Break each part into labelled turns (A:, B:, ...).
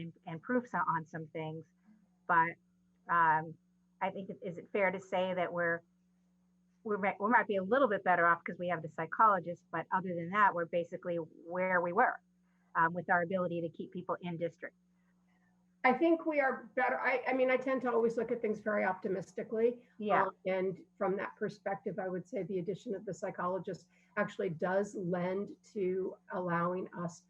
A: and, and proofs on some things. But um, I think, it- is it fair to say that we're, we might, we might be a little bit better off because we have the psychologist, but other than that, we're basically where we were um, with our ability to keep people in district.
B: I think we are better. I, I mean, I tend to always look at things very optimistically.
A: Yeah,
B: Um, And from that perspective, I would say the addition of the psychologist actually does lend to allowing us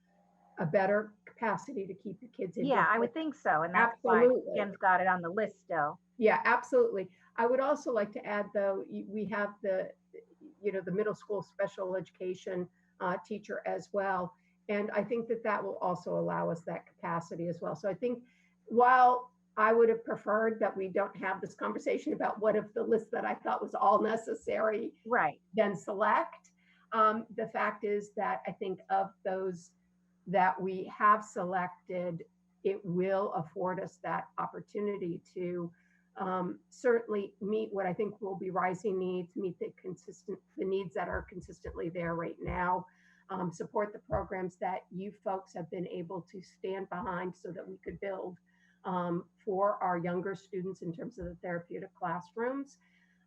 B: a better capacity to keep the kids in.
A: yeah, I
B: district.
A: would think so. And that's why
B: Absolutely.
A: Jim's got it on the list still.
B: Yeah, absolutely. I would also like to add, though, y- we have the, you know, the middle school special education uh, teacher as well. And I think that that will also allow us that capacity as well. So I think while I would have preferred that we don't have this conversation about what if the list that I thought was all necessary
A: Right,
B: then select. Um, the fact is that I think of those that we have selected, it will afford us that opportunity to um, certainly meet what I think will be rising needs, meet the consistent the needs that are consistently there right now, um, support the programs that you folks have been able to stand behind so that we could build um, for our younger students in terms of the therapeutic classrooms.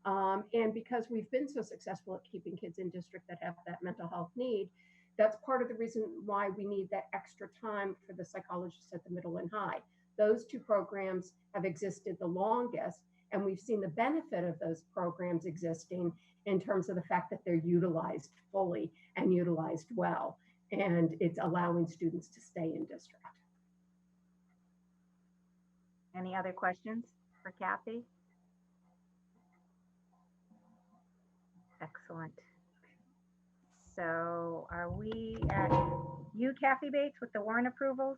B: Um, and because we've been so successful at keeping kids in district that have that mental health need, that's part of the reason why we need that extra time for the psychologists at the middle and high. Those two programs have existed the longest, and we've seen the benefit of those programs existing in terms of the fact that they're utilized fully and utilized well. And it's allowing students to stay in district.
A: any other questions for Kathy? Excellent. So are we at you, Kathy Bates, with the warrant approvals?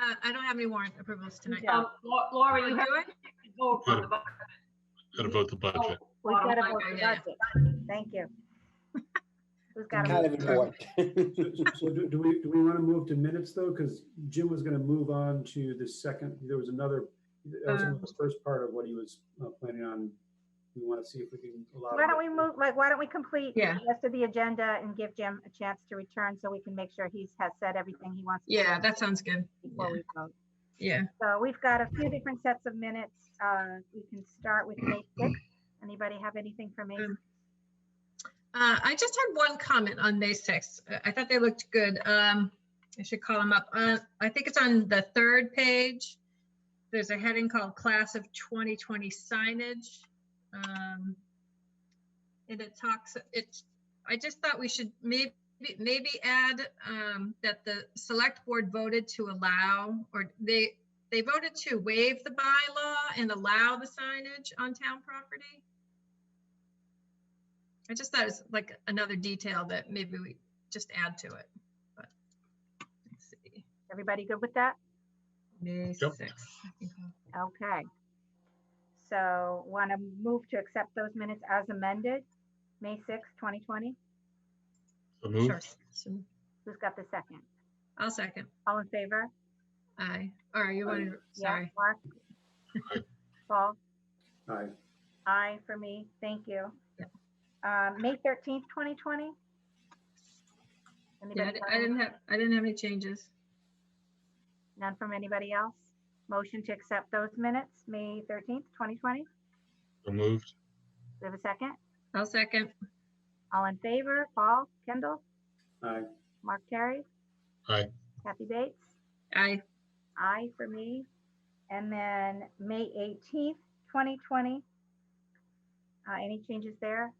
C: Uh, I don't have any warrant approvals tonight. Oh,
A: Yeah.
D: Um, Lau- Laura, you
C: Do
D: have
C: it?
D: to vote on the bu-
E: Got to vote the budget.
A: We've got to
D: Bottom
A: vote
C: line,
A: the
C: yeah,
A: budget. Thank you. Who's got
F: Kind
A: a,
F: of important.
G: So so do do we, do we want to move to minutes though? Because Jim was going to move on to the second, there was another, that
A: Uh.
G: was the first part of what he was uh, planning on. We want to see if we can allow.
A: why don't we move, like, why don't we complete
C: Yeah.
A: the rest of the agenda and give Jim a chance to return so we can make sure he's has said everything he wants. to
C: Yeah,
A: say
C: that sounds good.
A: Before
C: yeah.
A: we vote.
C: Yeah.
A: So we've got a few different sets of minutes. Uh, we can start with May sixth. Anybody have anything for me?
C: Um, Uh, I just had one comment on May 6th. Uh, I thought they looked good. Um, I should call them up. Uh, I think it's on the third page. There's a heading called Class of 2020 Signage. Um, and it talks, it's, I just thought we should maybe, maybe add, um, that the select board voted to allow, or they, they voted to waive the bylaw and allow the signage on town property. I just thought it was like another detail that maybe we just add to it, but let's see.
A: Everybody good with that?
C: May
E: Yep.
C: sixth. I think I'll-
A: Okay. So want to move to accept those minutes as amended, May sixth, twenty twenty?
E: So
C: Sure.
E: moved.
C: So
A: Who's got the second?
C: I'll second.
A: All in favor?
C: Aye. All right, you
G: Aye.
C: wanted,
A: Oh, Yeah,
C: sorry.
A: Mark?
E: Aye.
A: Paul?
G: Aye.
A: Aye for me, thank you.
C: Yeah.
A: Um, May thirteenth, twenty twenty?
C: Yeah, I
A: Anybody?
C: di-
A: got
C: I
A: any-
C: didn't have, I didn't have any changes.
A: None from anybody else? Motion to accept those minutes, May thirteenth, twenty twenty?
E: So moved.
A: We have a second?
C: I'll second.
A: All in favor, Paul, Kendall,
G: Aye.
A: Mark Terry?
E: Aye.
A: Kathy Bates?
C: Aye.
A: Aye for me. And then May eighteenth, twenty twenty? Uh, any changes there?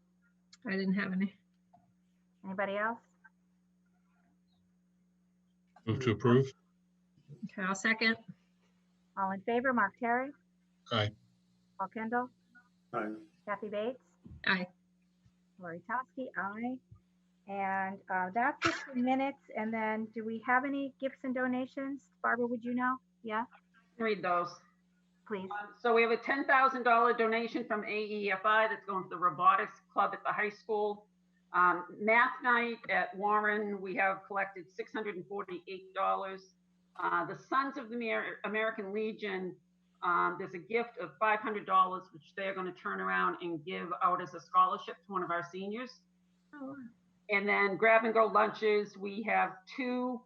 C: I didn't have any.
A: Anybody else?
E: Move to approve.
C: Okay, I'll second.
A: All in favor, Mark Terry?
E: Aye.
A: Paul Kendall?
G: Aye.
A: Kathy Bates?
C: Aye.
A: Lori Toski, aye. And uh, that's it for minutes. And then do we have any gifts and donations? Barbara, would you know? Yeah,
D: read those.
A: please.
D: Um, So we have a ten thousand dollar donation from AEFI that's going to the robotics club at the high school. Um, math night at Warren, we have collected six hundred and forty-eight dollars. Uh, the Sons of the Amer- American Legion, um, there's a gift of five hundred dollars, which they're gonna turn around and give out as a scholarship to one of our seniors.
C: Oh,
D: And then grab and go lunches, we have two